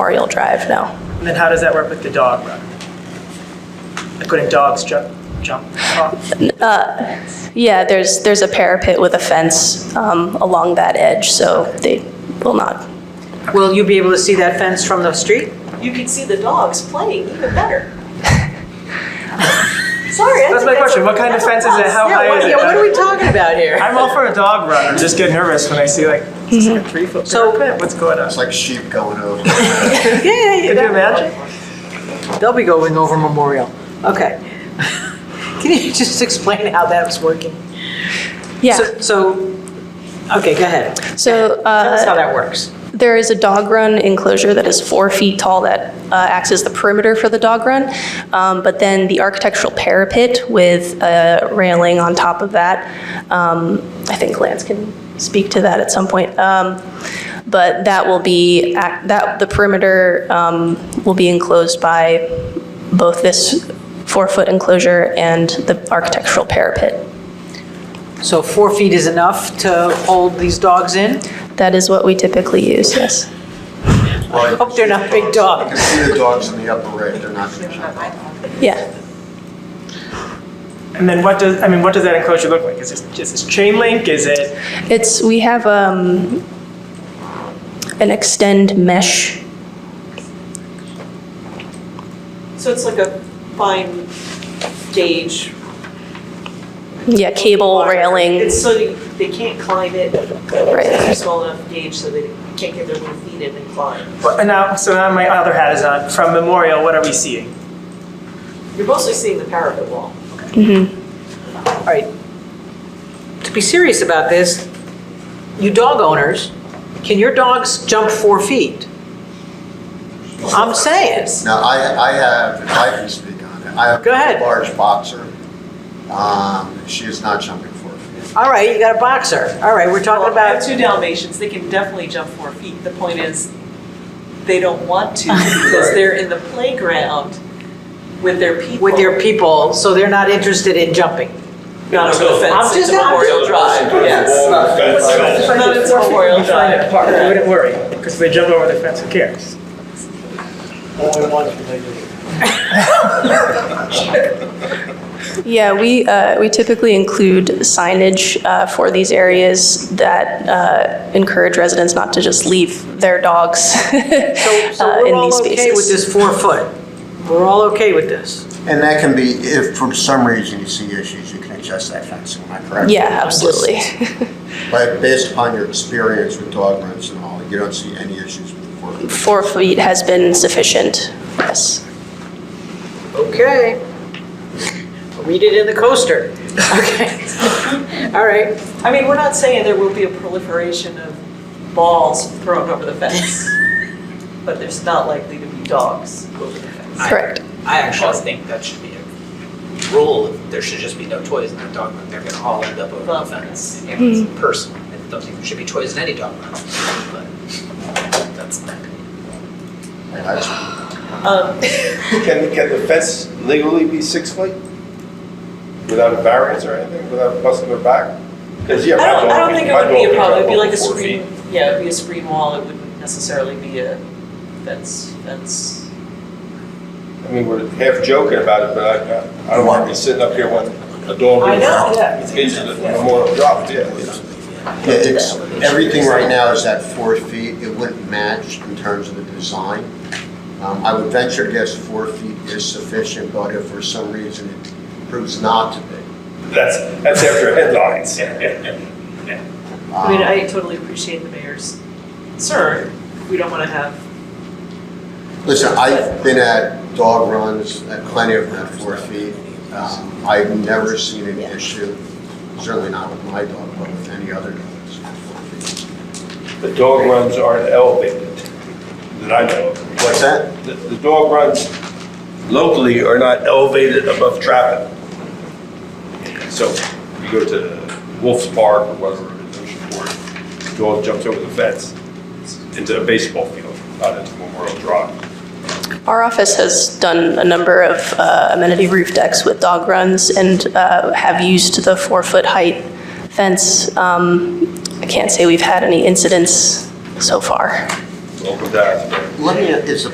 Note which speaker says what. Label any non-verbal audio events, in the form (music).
Speaker 1: Memorial Drive now.
Speaker 2: And then how does that work with the dog run? Like, Couldn't dogs jump, jump off?
Speaker 1: Yeah, there's, there's a parapet with a fence um, along that edge, so they will not.
Speaker 3: Will you be able to see that fence from the street?
Speaker 4: You can see the dogs playing even better. Sorry, I
Speaker 2: That's
Speaker 4: think
Speaker 2: my question. What kind of
Speaker 4: that's
Speaker 2: fence
Speaker 4: a
Speaker 2: is it?
Speaker 4: plus.
Speaker 2: How
Speaker 3: Yeah,
Speaker 2: high is
Speaker 3: what,
Speaker 2: it?
Speaker 3: yeah, what are we talking about here?
Speaker 2: I'm all for a dog run. I'm just get nervous when I see like, is this like a three foot
Speaker 3: So-
Speaker 2: parapet? What's going on?
Speaker 5: It's like sheep going over.
Speaker 3: Yeah, yeah, yeah.
Speaker 2: Could you imagine?
Speaker 3: They'll be going over Memorial. Okay. (laughs) Can you just explain how that was working?
Speaker 1: Yeah,
Speaker 3: So- So, okay, go ahead.
Speaker 1: so
Speaker 3: Tell us
Speaker 1: uh,
Speaker 3: how that works.
Speaker 1: there is a dog run enclosure that is four feet tall that uh, acts as the perimeter for the dog run, Um, but then the architectural parapet with a railing on top of that, um, I think Lance can speak to that at some point, Um, but that will be, ac- that, the perimeter um, will be enclosed by both this four-foot enclosure and the architectural parapet.
Speaker 3: So four feet is enough to hold these dogs in?
Speaker 1: That is what we typically use, yes.
Speaker 3: Hope they're not big
Speaker 5: You can
Speaker 3: dogs.
Speaker 5: see the dogs in the upper right, they're not gonna jump.
Speaker 1: Yeah.
Speaker 2: And then what does, I mean, what does that enclosure look like? Is this, is this chain link? Is it,
Speaker 1: It's, we have um, an extend mesh.
Speaker 4: So it's like a fine gauge.
Speaker 1: Yeah, cable
Speaker 4: wire.
Speaker 1: railing.
Speaker 4: It's so they- they can't climb it.
Speaker 1: Right.
Speaker 4: It's a small enough gauge so they can't get their little feet in and climb.
Speaker 2: and now, so now my other hat is on. From Memorial, what are we seeing?
Speaker 4: You're mostly seeing the parapet wall.
Speaker 3: All right. To be serious about this, you dog owners, can your dogs jump four feet? I'm saying.
Speaker 5: Now, I, I have, if I can speak on it, I have
Speaker 3: Go ahead.
Speaker 5: a large boxer. Um, she is not jumping four feet.
Speaker 3: All right, you got a boxer. All right, we're talking
Speaker 4: Well, I have
Speaker 3: about,
Speaker 4: two Dalmatians, they can definitely jump four feet. The point is, they don't
Speaker 1: (laughs)
Speaker 4: want to because they're in the playground with their people.
Speaker 3: with your people, so they're not interested in jumping.
Speaker 4: Not over the fence,
Speaker 3: I'm
Speaker 4: it's
Speaker 3: just-
Speaker 4: Memorial Drive, yes.
Speaker 6: Yes.
Speaker 4: Not it's Memorial Drive.
Speaker 2: Park, we wouldn't worry, because if they jump over the fence, who cares?
Speaker 1: Yeah, we, uh, we typically include signage uh, for these areas that uh, encourage residents not to just leave their dogs (laughs) uh,
Speaker 3: So
Speaker 1: in
Speaker 3: we're all
Speaker 1: these
Speaker 3: okay with
Speaker 1: spaces.
Speaker 3: this four foot? We're all okay with this?
Speaker 5: And that can be, if for some reason you see issues, you can adjust that fencing, am I correct?
Speaker 1: Yeah, absolutely.
Speaker 3: (laughs)
Speaker 5: But based upon your experience with dog runs and all, you don't see any issues with the four feet.
Speaker 1: Four feet has been sufficient, yes.
Speaker 3: Okay. Read it in the coaster. (laughs) Okay. All right.
Speaker 4: I mean, we're not saying there will be a proliferation of balls thrown over the fence, but there's not likely to be dogs over the fence.
Speaker 1: Correct.
Speaker 7: I actually think that should be a rule, there should just be no toys in the dog run, they're gonna all end up over the
Speaker 4: Love
Speaker 7: fence. And Personally, I don't think there should be toys in any dog run, but that's my opinion.
Speaker 5: That's-
Speaker 4: Um,
Speaker 6: Can, can the fence legally be six feet? Without a variance or anything, without busting their back? Because, yeah,
Speaker 4: I
Speaker 6: my dog.
Speaker 4: don't, I don't think it
Speaker 6: my
Speaker 4: would be
Speaker 6: dog
Speaker 4: a
Speaker 6: can
Speaker 4: problem, it'd be
Speaker 6: jump
Speaker 4: like a
Speaker 6: over four
Speaker 4: screen, yeah, it'd be a screen wall, it wouldn't necessarily be a fence, fence.
Speaker 6: feet. I mean, we're half joking about it, but I, I don't want to be sitting up here when a dog.
Speaker 4: I know, yeah.
Speaker 6: Into the memorial drop, yeah. you know.
Speaker 5: Yeah, it's, everything right now is at four feet, it wouldn't match in terms of the design. Um, I would venture to guess four feet is sufficient, but if for some reason it proves not to be.
Speaker 6: That's, that's after headlines.
Speaker 4: I mean,
Speaker 5: um,
Speaker 6: Ah.
Speaker 4: I totally appreciate the mayor's concern, we don't wanna have
Speaker 5: Listen, I've been at dog runs, at plenty of them at four feet. Um, I've never seen an issue, certainly not with my dog, but with any other dogs. at four feet.
Speaker 6: The dog runs aren't elevated, that I know of.
Speaker 5: What's that?
Speaker 6: The, the dog runs locally are not elevated above traffic. So you go to Wolf's Park or whatever, in Oceanport, dog jumps over the fence into a baseball field, not into Memorial Drive.
Speaker 1: Our office has done a number of uh, amenity roof decks with dog runs and uh, have used the four-foot height fence. Um, I can't say we've had any incidents so far.
Speaker 8: Welcome to Asbury.
Speaker 6: Let me, is the